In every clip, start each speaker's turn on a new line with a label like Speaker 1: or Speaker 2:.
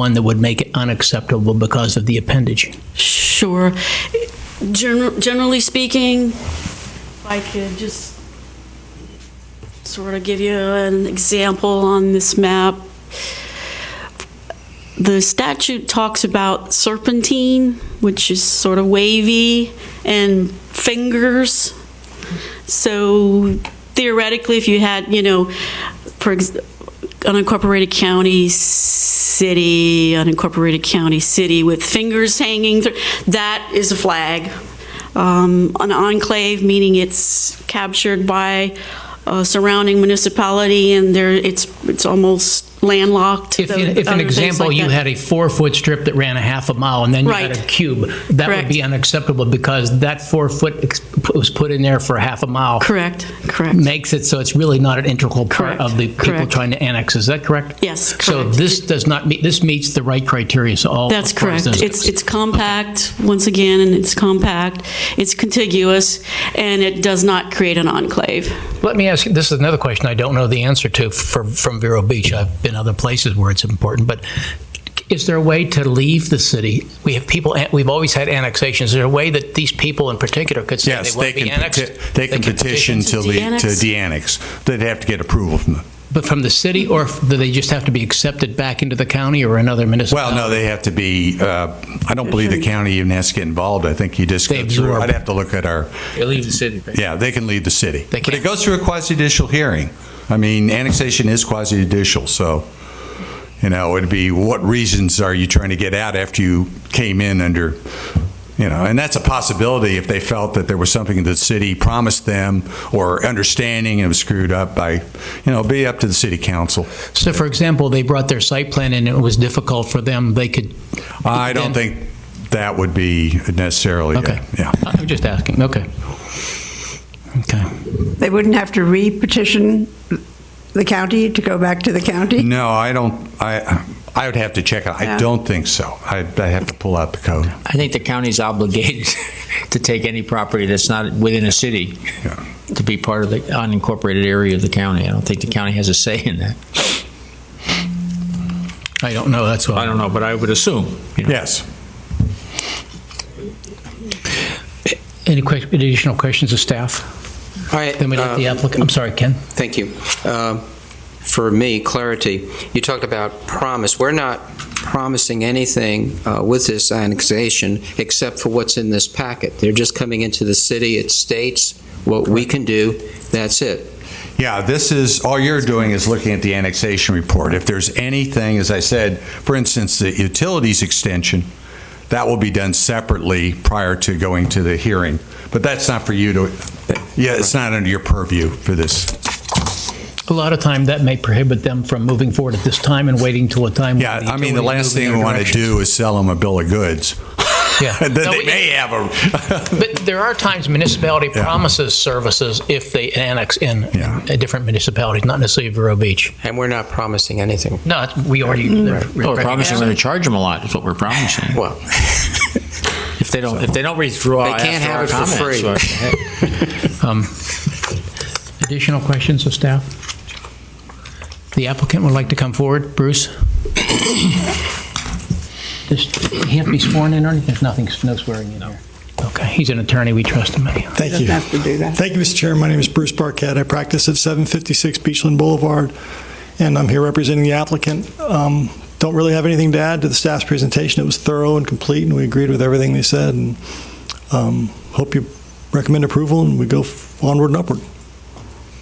Speaker 1: one that would make it unacceptable because of the appendage.
Speaker 2: Sure. Gen- Generally speaking, if I could just sort of give you an example on this map. The statute talks about serpentine, which is sort of wavy, and fingers. So theoretically, if you had, you know, for ex- unincorporated county, city, unincorporated county, city with fingers hanging, through, that is a flag. Um, an enclave, meaning it's captured by a surrounding municipality and there, it's, it's almost landlocked.
Speaker 1: If,
Speaker 2: though
Speaker 1: you- if
Speaker 2: other
Speaker 1: an
Speaker 2: things
Speaker 1: example,
Speaker 2: like
Speaker 1: you
Speaker 2: that.
Speaker 1: had a four-foot strip that ran a half a mile, and then you had a
Speaker 2: Right.
Speaker 1: cube, that would
Speaker 2: Correct.
Speaker 1: be unacceptable because that four-foot ex- was put in there for a half a mile.
Speaker 2: Correct, correct.
Speaker 1: Makes it so it's really not an integral part
Speaker 2: Correct.
Speaker 1: of the people
Speaker 2: Correct.
Speaker 1: trying to annex. Is that correct?
Speaker 2: Yes,
Speaker 1: So
Speaker 2: correct.
Speaker 1: this does not meet, this meets the right criteria, so all.
Speaker 2: That's
Speaker 1: of course,
Speaker 2: correct.
Speaker 1: those-
Speaker 2: It's, it's compact, once again, and it's compact, it's contiguous, and it does not create an enclave.
Speaker 1: Let me ask you, this is another question I don't know the answer to for, from Vero Beach. I've been other places where it's important, but is there a way to leave the city? We have people, we've always had annexations. Is there a way that these people in particular could say
Speaker 3: Yes,
Speaker 1: they want
Speaker 3: they
Speaker 1: to
Speaker 3: can,
Speaker 1: be annexed?
Speaker 3: peti- they can petition
Speaker 2: petition
Speaker 3: to
Speaker 2: to
Speaker 3: the, to
Speaker 2: de-annex?
Speaker 3: de-annex. They'd have to get approval from the,
Speaker 1: But from the city, or f- do they just have to be accepted back into the county or another
Speaker 3: well,
Speaker 1: municipality?
Speaker 3: no, they have to be, uh, I don't believe the county even has to get involved. I think you just
Speaker 1: They
Speaker 3: go through,
Speaker 1: absorb.
Speaker 3: I'd have to look at our,
Speaker 4: They leave the city.
Speaker 3: yeah, they can leave the city.
Speaker 1: They
Speaker 3: But
Speaker 1: can.
Speaker 3: it goes through a quasi-judicial hearing. I mean, annexation is quasi-judicial, so, you know, it'd be, what reasons are you trying to get out after you came in under, you know, and that's a possibility if they felt that there was something the city promised them or understanding and was screwed up by, you know, be up to the city council.
Speaker 1: So for example, they brought their site plan and it was difficult for them, they could.
Speaker 3: I don't
Speaker 1: then-
Speaker 3: think that would be necessarily,
Speaker 1: Okay.
Speaker 3: a- yeah.
Speaker 1: I'm just asking, okay. Okay.
Speaker 5: They wouldn't have to re-petition the county to go back to the county?
Speaker 3: No, I don't, I, I would have to check, it. I
Speaker 5: Yeah.
Speaker 3: don't think so. I I have to pull out the code.
Speaker 4: I think the county's obligated to take any property that's not within a city
Speaker 3: Yeah.
Speaker 4: to be part of the unincorporated area of the county. I don't think the county has a say in that.
Speaker 1: I don't know, that's why.
Speaker 4: I don't know, but I would assume. you know.
Speaker 3: Yes.
Speaker 1: Any que- additional questions of staff?
Speaker 6: All right.
Speaker 1: Then we let
Speaker 6: uh,
Speaker 1: the applicant, I'm sorry, Ken?
Speaker 6: Thank you. Uh, For me, clarity, you talked about promise. We're not promising anything uh, with this annexation except for what's in this packet. They're just coming into the city, it states what we can do, that's it.
Speaker 3: Yeah, this is, all you're doing is looking at the annexation report. If there's anything, as I said, for instance, the utilities extension, that will be done separately prior to going to the hearing. But that's not for you to, yeah, it's not under your purview for this.
Speaker 1: A lot of time, that may prohibit them from moving forward at this time and waiting till a time. when
Speaker 3: Yeah, I mean, the
Speaker 1: utility
Speaker 3: last
Speaker 1: moves in
Speaker 3: thing we
Speaker 1: their
Speaker 3: want to
Speaker 1: direction.
Speaker 3: do is sell them a bill of goods.
Speaker 1: Yeah.
Speaker 3: Then
Speaker 1: No,
Speaker 3: they
Speaker 1: it-
Speaker 3: may have a,
Speaker 1: But there are times municipality
Speaker 3: Yeah.
Speaker 1: promises services if they annex in
Speaker 3: Yeah.
Speaker 1: a different municipality, not necessarily Vero Beach.
Speaker 6: And we're not promising anything.
Speaker 1: No, it's- we already.
Speaker 3: Mm.
Speaker 4: Well, we're promising we're going to charge them a lot, is what we're promising.
Speaker 6: Well,
Speaker 4: If they don't, if they don't withdraw
Speaker 6: They can't
Speaker 4: after
Speaker 6: have
Speaker 4: our
Speaker 6: it for
Speaker 4: comments, or-
Speaker 6: free.
Speaker 1: Um, Additional questions of staff? The applicant would like to come forward. Bruce? Does he have to be sworn in or anything? There's nothing, no swearing in here. Okay, he's an attorney, we trust him anyhow.
Speaker 7: Thank
Speaker 5: Doesn't
Speaker 7: you.
Speaker 5: have to do that.
Speaker 7: Thank you, Mr. Chair. My name is Bruce Barquette. I practice at 756 Beachland Boulevard, and I'm here representing the applicant. Um, Don't really have anything to add to the staff's presentation. It was thorough and complete, and we agreed with everything they said. And um, Hope you recommend approval, and we go onward and upward.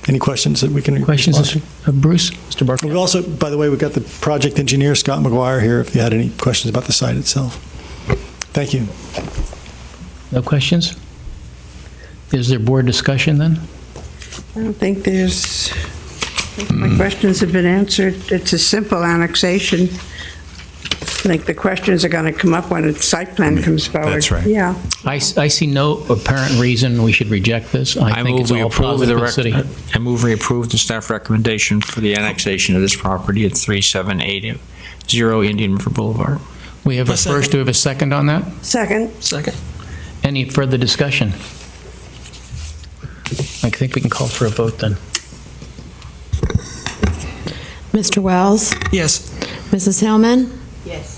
Speaker 7: Any questions that we can?
Speaker 1: Questions
Speaker 7: respond
Speaker 1: of- of Bruce? Mr.
Speaker 7: to?
Speaker 1: Barker?
Speaker 7: We've also, by the way, we've got the project engineer, Scott McGuire, here, if you had any questions about the site itself. Thank you.
Speaker 1: No questions? Is there board discussion then?
Speaker 5: I don't think there's, I think my
Speaker 3: Mm.
Speaker 5: questions have been answered. It's a simple annexation. I think the questions are going to come up when its site plan comes forward.
Speaker 3: That's right.
Speaker 5: Yeah.
Speaker 1: I, s- I see no apparent reason we should reject this. I
Speaker 4: I
Speaker 1: think it's
Speaker 4: move we
Speaker 1: all
Speaker 4: approve
Speaker 1: positive
Speaker 4: the
Speaker 1: for the city.
Speaker 4: rec- I move we approve the staff recommendation for the annexation of this property at 3780 Indian River Boulevard.
Speaker 1: We have a first, do we have a second on that?
Speaker 5: Second,
Speaker 4: Second.
Speaker 1: Any further discussion? I think we can call for a vote then.
Speaker 8: Mr. Wells?
Speaker 9: Yes.
Speaker 8: Mrs. Hellman? Yes.